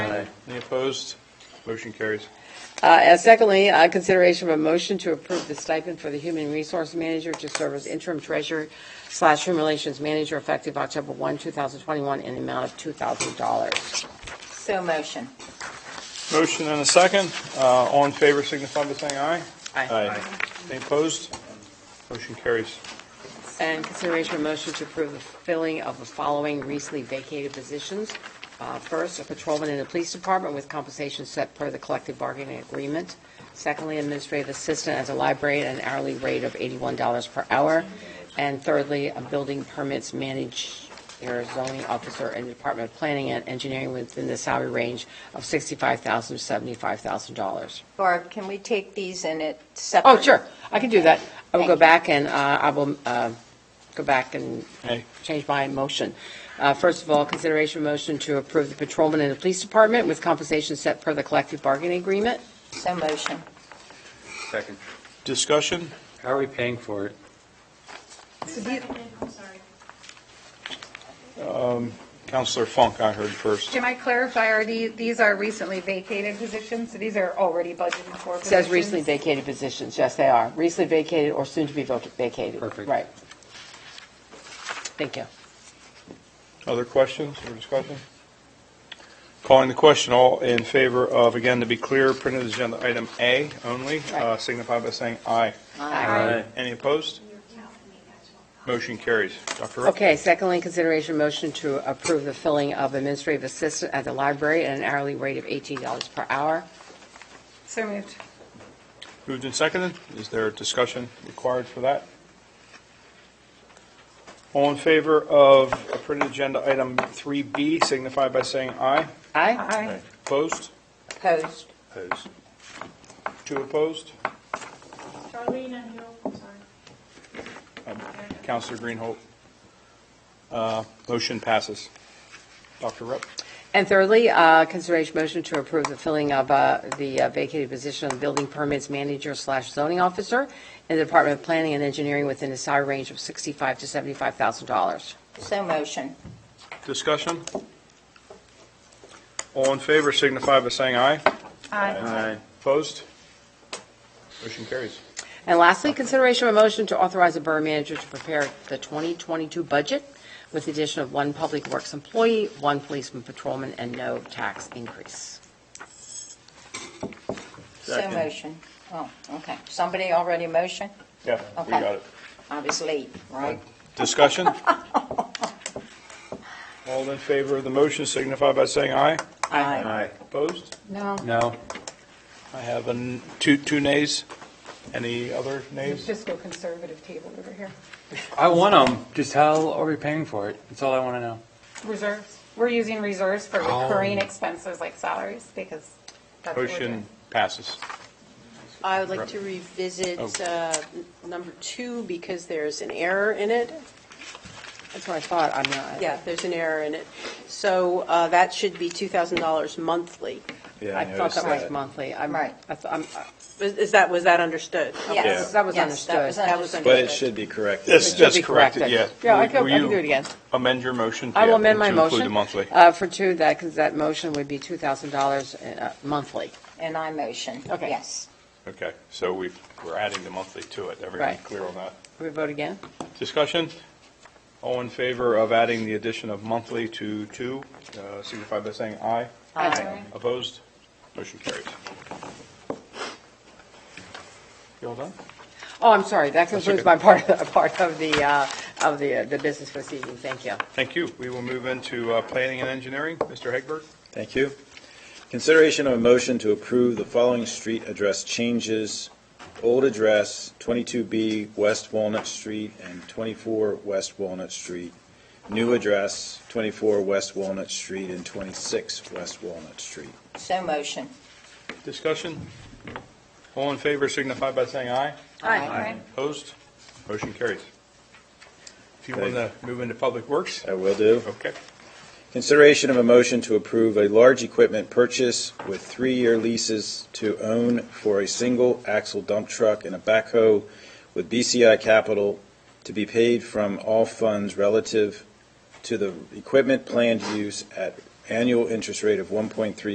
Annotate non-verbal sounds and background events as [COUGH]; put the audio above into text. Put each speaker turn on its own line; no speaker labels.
Aye. Any opposed? Motion carries.
Uh, and Secondly, uh, consideration of a motion to approve the stipend for the human resource manager to serve as interim treasurer slash human relations manager effective October 1, 2021, in the amount of $2,000.
So motion.
Motion and a second. Uh, All in favor signify by saying aye.
Aye.
Any opposed? Motion carries.
And consideration of motion to approve the filling of the following recently vacated positions. Uh, First, a patrolman in the police department with compensation set per the collective bargaining agreement. Secondly, administrative assistant at the library at an hourly rate of $81 per hour. And thirdly, a building permits manager, zoning officer in the Department of Planning and Engineering within the salary range of $65,000 to $75,000.
Barb, can we take these in it separate?
Oh, sure, I can do that. I will go
Thank you.
back and, uh, I will uh, go back and
Hey.
change my motion. Uh, First of all, consideration of motion to approve the patrolman in the police department with compensation set per the collective bargaining agreement.
So motion.
Second.
Discussion?
How are we paying for it?
I'm sorry.
Counselor Funk, I heard first.
Can I clarify, are the- these are recently vacated positions? So these are already budgeted for
It
positions?
says recently vacated positions, yes, they are, recently vacated or soon to be voc- vacated.
Perfect.
Right. Thank you.
Other questions or discussion? Calling the question, all in favor of, again, to be clear, printed agenda item A only, uh,
Right.
signify by saying aye.
Aye.
Any opposed? Motion carries. Dr. Rupp?
Okay, secondly, consideration of motion to approve the filling of administrative assistant at the library at an hourly rate of $18 per hour.
So moved.
Moved and seconded. Is there a discussion required for that? All in favor of a printed agenda item 3B, signify by saying aye.
Aye?
Aye.
Opposed?
Opposed.
Opposed.
Two opposed?
Charlene and Hill, I'm sorry.
Um, Counselor Greenhold. Uh, Motion passes. Dr. Rupp?
And thirdly, uh, consideration motion to approve the filling of uh, the uh, vacated position of building permits manager slash zoning officer in the Department of Planning and Engineering within a salary range of sixty-five to seventy-five thousand dollars.
So motion.
Discussion? All in favor signify by saying aye.
Aye.
Aye.
Opposed? Motion carries.
And lastly, consideration of a motion to authorize the borough manager to prepare the 2022 budget with the addition of one public works employee, one policeman patrolman, and no tax increase.
So motion. Oh, okay. Somebody already motion?
Yeah, we
Okay.
got it.
I was late, right?
Discussion? All in favor of the motion signify by saying aye.
Aye.
Opposed?
No.
No.
I have a n- two, two nays. Any other
The
nays?
fiscal conservative table over here.
I want them. Just how are we paying for it? That's all I want to know.
Reserves. We're using reserves for
Oh.
recurring expenses like salaries because that's what we're
Motion
doing.
passes.
I would like to revisit
Oh.
uh, n- number two because there's an error in it.
That's what I thought, I'm not,
Yeah, there's an error in it. So uh, that should be $2,000 monthly.
I thought that was monthly. I'm-
Right.
I th- I'm- I-
Is is that, was that understood?
Yes.
That was
Yes,
understood.
That was
That was
understood.
But it should be corrected.
That's,
should
that's
be
corrected, yeah.
corrected. Yeah, I
Will-
can-
will
I can
you
do it again.
Amend your motion?
I
Yeah,
will amend my
To
motion.
include the monthly.
uh, For two, that, because that motion would be $2,000 uh, monthly.
And I motion.
Okay.
Yes.
Okay, so we, we're adding the monthly to it. Everyone
Right.
clear on that?
Can we vote again?
Discussion? All in favor of adding the addition of monthly to two, uh, signify by saying aye.
Aye.
Opposed? Motion carries. You all done?
Oh, I'm sorry, that
That's
concludes
okay.
my [LAUGHS] part of, the- part of the, uh, of the, the business for this evening, thank you.
Thank you. We will move into uh, planning and engineering. Mr. Hegberg?
Thank you. Consideration of a motion to approve the following street address changes. Old address, 22B West Walnut Street and 24 West Walnut Street. New address, 24 West Walnut Street and 26 West Walnut Street.
So motion.
Discussion? All in favor signify by saying aye.
Aye.
Opposed? Motion carries. If you want to move into Public Works,
I will do.
okay.
Consideration of a motion to approve a large equipment purchase with three-year leases to own for a single axle dump truck and a backhoe with BCI capital to be paid from all funds relative to the equipment planned use at annual interest rate of 1.3